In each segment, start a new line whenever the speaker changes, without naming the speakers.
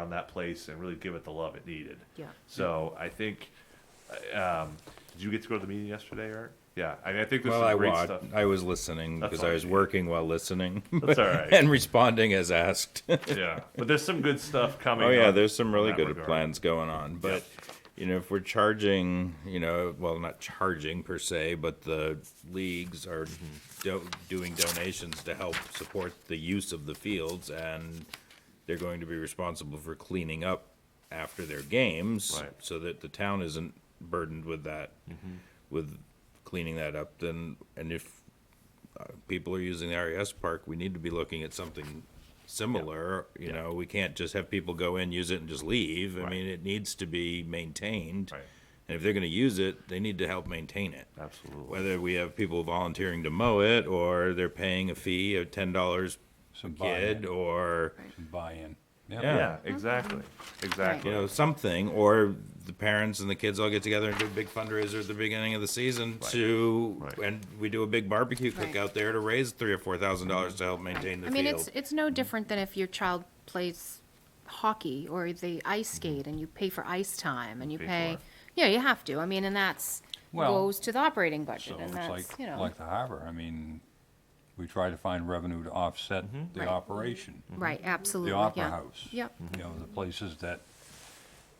on that place and really give it the love it needed.
Yeah.
So I think, um, did you get to go to the meeting yesterday, Eric? Yeah, I mean, I think there's
Well,
some
I
great
watched.
stuff.
I was listening
That's
because
all
I was
right.
working while listening.
That's all right.
and responding as asked.
Yeah, but there's some good stuff coming.
oh yeah,
on-
there's some
in
really
that
good
regard.
plans going on, but you know, if we're charging, you know, well, not charging per se, but the leagues are do- doing donations to help support the use of the fields, and they're going to be responsible for cleaning up after their games,
Right. Mm-hmm.
so that the town isn't burdened with that, with cleaning that up. Then, and if people are using the RES park, we need to be looking at something similar. You know, we can't just have people go in, use it and just leave. I
Right.
mean, it needs to be maintained.
Right.
And if they're gonna use it, they need to help maintain it.
Absolutely.
Whether we have people volunteering to mow it or they're paying a fee of ten dollars
Some
kid
buy-in,
or,
some buy-in.
Yeah.
Yeah, exactly, exactly.
you know, something, or the parents and the kids all get together and do a big fundraiser at the beginning of the season to,
Right.
and we do a big barbecue
Right.
cookout there to raise three or four thousand dollars to help maintain the
I
field.
mean, it's, it's no different than if your child plays hockey or they ice
Mm-hmm.
skate and you pay for ice time and you
Pay
pay,
for it.
yeah, you have to. I mean, and that's,
Well,
goes to the operating budget
So
and
it's
that's,
like,
you know,
like the harbor, I mean, we try to find revenue to offset the
Right.
operation.
right, absolutely,
mm-hmm. The
yeah.
Opera House.
Yep,
You know, the places that,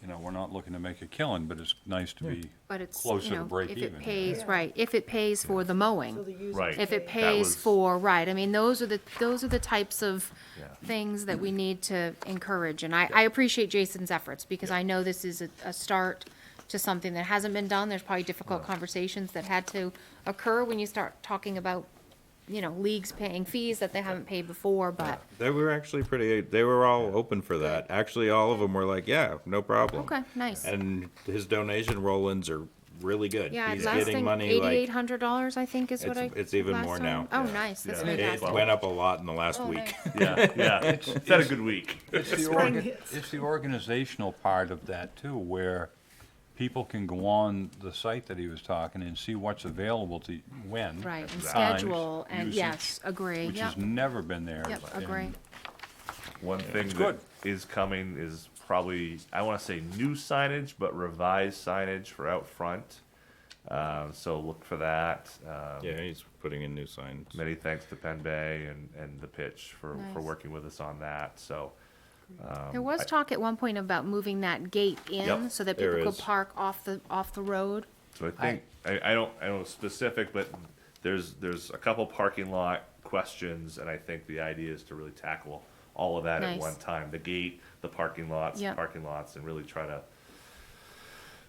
you know, we're not looking to make a killing, but it's nice to be
but it's,
closer
you
to
know,
break
if
even.
it pays, right, if it pays for the
So the
mowing,
user
Right.
if it
pays.
pays
was-
for, right, I mean, those are the, those are the types of
Yeah.
things that we need to encourage, and I, I appreciate Jason's efforts, because I know this is a, a start to something that hasn't been done, there's probably difficult conversations that had to occur when you start talking about, you know, leagues paying fees that they haven't paid before, but,
They were actually pretty, they were all open for that. Actually, all of them were like, yeah, no problem.
okay, nice.
And his donation roll-ins are really good.
Yeah,
He's
last
getting
thing,
money
eighty-eight
like,
hundred dollars, I think is what I.
It's- it's even
last
more
time.
now.
Oh,
Yeah.
nice, that's
Yeah.
it
Wow.
fantastic.
went up a lot in the last
Oh,
week.
nice.
Yeah, yeah, it's had a good week.
It's the,
Spring
orga-
hits.
it's the organizational part of that too, where people can go on the site that he was talking and see what's available to, when.
Right, and
times,
schedule, and
usage,
yes, agree,
Which
yep,
has never been there.
yep,
and-
agree,
One thing that
good.
is coming is probably, I want to say new signage, but revised signage for out front. Um, so look for that. Um,
Yeah, he's putting in new signs.
Many thanks to Penn Bay and, and the pitch for, for
Nice.
working with us on that. So,
there was talk at one point about moving that gate in,
Yep,
so that
there
people could
is.
park off the, off the road,
so I think, I, I don't, I don't know specific, but there's, there's a couple parking lot questions. And I think the idea is to really tackle all of that at
Nice.
one time, the gate, the parking lots,
Yep.
parking lots, and really try to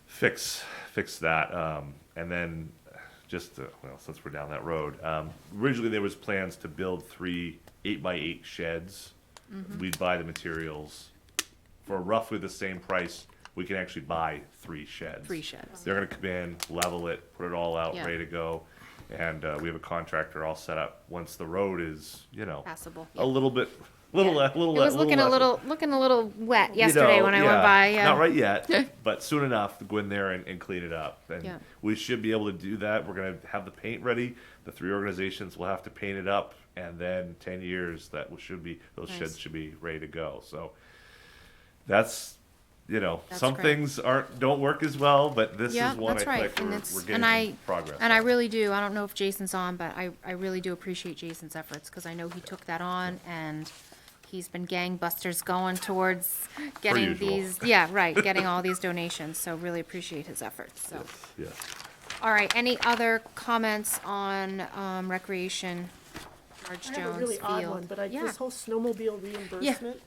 fix, fix that. Um, and then just, uh, well, since we're down that road, um, originally there was plans to build three eight by eight sheds.
Mm-hmm.
We'd buy the materials for roughly the same price. We can actually buy three sheds.
Three sheds.
They're gonna come in, level it, put it all out,
Yeah.
ready to go. And, uh, we have a contractor all set up. Once the road is, you know,
passable.
a
yeah.
little bit, little, le- little,
It
le-
was looking a
level
little, looking a little wet
you
yesterday
know,
when I went by,
Not
yeah,
right yet, but soon enough, to go in there and, and clean it up. And
Yeah.
we should be able to do that. We're going to have the paint ready. The three organizations will have to paint it up, and then ten years that will- should be those
Nice.
sheds should be ready to go. So that's. You know,
That's
some
great.
things aren't don't work as well, but this
yeah,
is one
that's
I
right,
think
and
we're,
it's,
we're getting
and I,
progress.
and I
on.
really do, I don't know if Jason's on, but I, I really do appreciate Jason's efforts, cause I know he took that on, and he's been gangbusters going towards getting
usual.
these, yeah, right, getting all these donations, so really appreciate his efforts, so.
yeah.
All right, any other comments on um, recreation, George
I
Jones Field?
have a really odd one, but I,
Yeah.
this whole snowmobile reimbursement.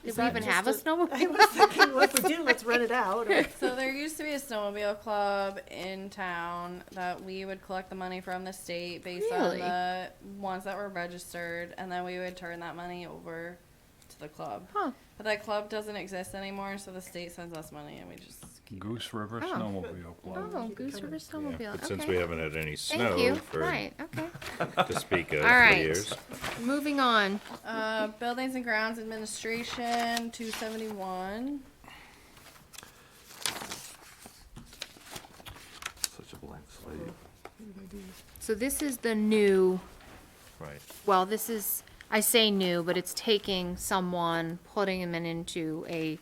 Did
is
we
that
even
just
have a snowmobile?
I was thinking, well, if we do, let's rent it out, or,
So there used to be a snowmobile club in town that we would collect the money from the state based
Really?
on the ones that were registered, and then we would turn that money over to the club.
Huh.
But that club doesn't exist anymore, so the state sends us money, and we just
Goose River
Oh.
Snowmobile Club.
Oh, Goose River Snowmobile,
But
okay.
since we haven't had any
Thank you,
snow for,
right, okay.
to speak of
All
for
right.
years.
Moving on,
uh, buildings and grounds administration two seventy one.
Such a blank slate,
so this is the new,
right?
well, this is, I say new, but it's taking someone, putting them into a